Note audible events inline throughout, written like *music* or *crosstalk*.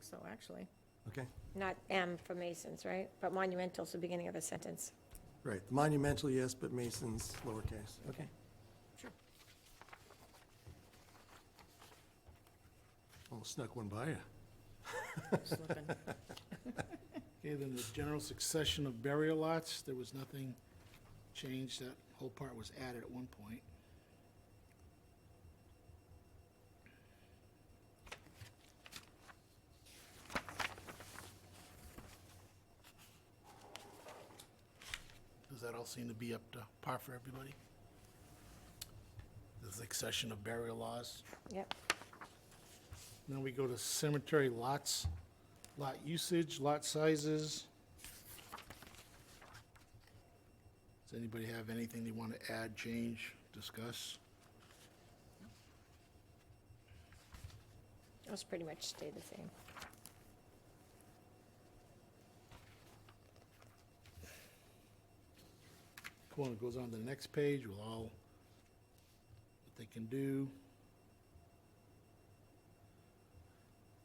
so, actually. Okay, Not M for Masons, right? But monumental's the beginning of the sentence. right. Monumental, yes, but Mason's lowercase. Okay. Sure. Almost snuck one by you. Slipping. Okay, then the general succession of burial lots, there was nothing changed, that whole part was added at one point. Does that all seem to be up to par for everybody? The succession of burial laws? Yep. Then we go to cemetery lots, lot usage, lot sizes. Does anybody have anything they want to add, change, discuss? Those pretty much stay the same. Come on, it goes on to the next page, we'll all, what they can do.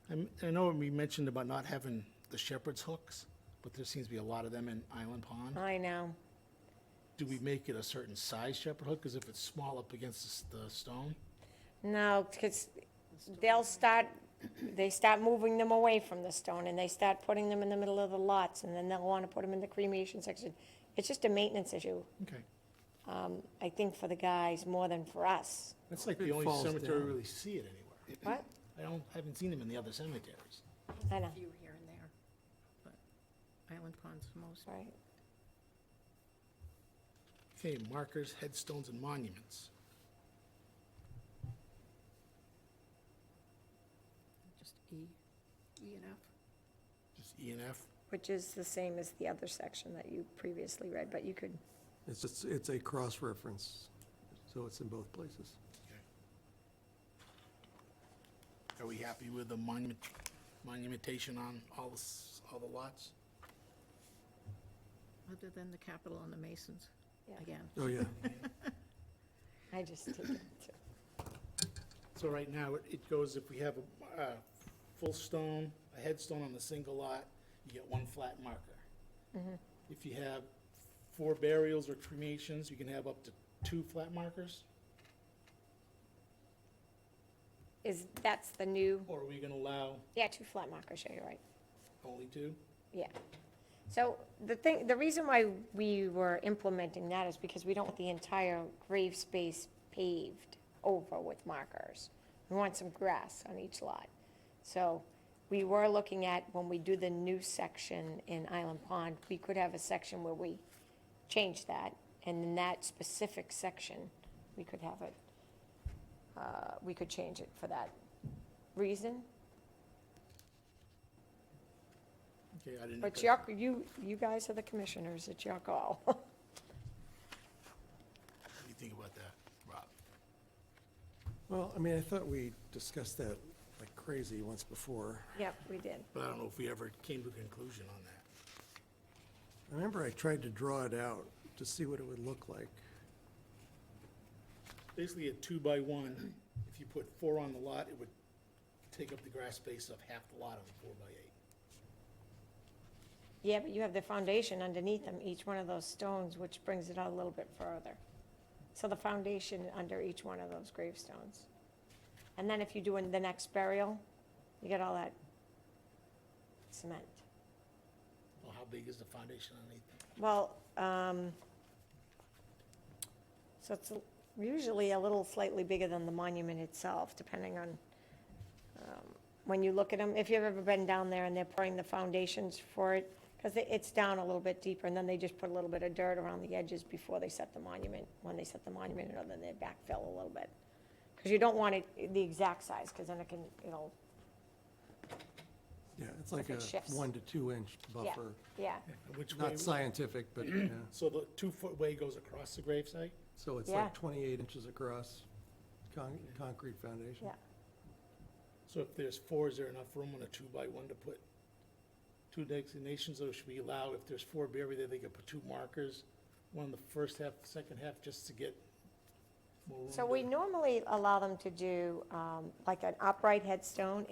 I'm- I know we mentioned about not having the shepherd's hooks, but there seems to be a lot of them in Island Pond. I know. Do we make it a certain size shepherd hook? Because if it's small up against the s- the stone? No, because they'll start, they start moving them away from the stone, and they start putting them in the middle of the lots, and then they'll want to put them in the cremation section. It's just a maintenance issue, Okay. I think, for the guys more than for us. That's like It the only falls cemetery we down. really see it anywhere. What? I don't, I haven't seen them in the other cemeteries. I know, Few here and there, but Island Pond's the most. right? Okay, markers, headstones, and monuments. Just E, E and F. Just E and F. Which is the same as the other section that you previously read, but you could, It's just, it's a cross-reference, so it's in both places. Are we happy with the monument, monumentation on all the, s- all *laughs* the lots? Other than the capital and the Masons, Yeah. again. Oh, yeah. I just take it too. So right now, it- it goes, if we have a, a full stone, a headstone on a single lot, you get one flat marker. Mm-hmm. If you have four burials or cremations, you can have up to two flat markers? Is, that's the new, Or are we gonna allow yeah, two flat markers, yeah, you're right. only two? Yeah. So the thing, the reason why we were implementing that is because we don't want the entire grave space paved over with markers. We want some grass on each lot. So we were looking at, when we do the new section in Island Pond, we could have a section where we change that. And in that specific section, we could have it, uh, we could change it for that reason. Okay, I didn't. But your, you, you guys are the commissioners, it's your *laughs* call. What do you think about that, Rob? *laughs* Well, I mean, I thought we discussed that like crazy once before. Yep, we did. But I don't know if we ever came to a conclusion on that. I remember I tried to draw it out to see what it would look like. Basically, a two by one, if you put four on the lot, it would take up the grass space of half the lot of a four by eight. Yeah, but you have the foundation underneath them, each one of those stones, which brings it out a little bit further. So the foundation under each one of those gravestones. And then if you do in the next burial, you get all that cement. Well, how big is the foundation underneath? Well, um, so it's usually a little slightly bigger than the monument itself, depending on, um, when you look at them, if you've ever been down there and they're pouring the foundations for it, because it's down a little bit deeper, and then they just put a little bit of dirt around the edges before they set the monument. When they set the monument, and then they backfill a little bit. Because you don't want it the exact size, because then it can, it'll, Yeah, it's like a it shifts. one to two inch buffer. yeah, And Which way, Not scientific, but, yeah. *clears throat* so the two-foot way goes across the gravesite? So it's Yeah. like 28 inches across, con- concrete foundation. yeah. So if there's four, is there enough room on a two by one to put two designations, or should we allow, if there's four buried there, they could put two markers? One in the first half, second half, just to get more room? So we to- normally allow them to do um, like an upright headstone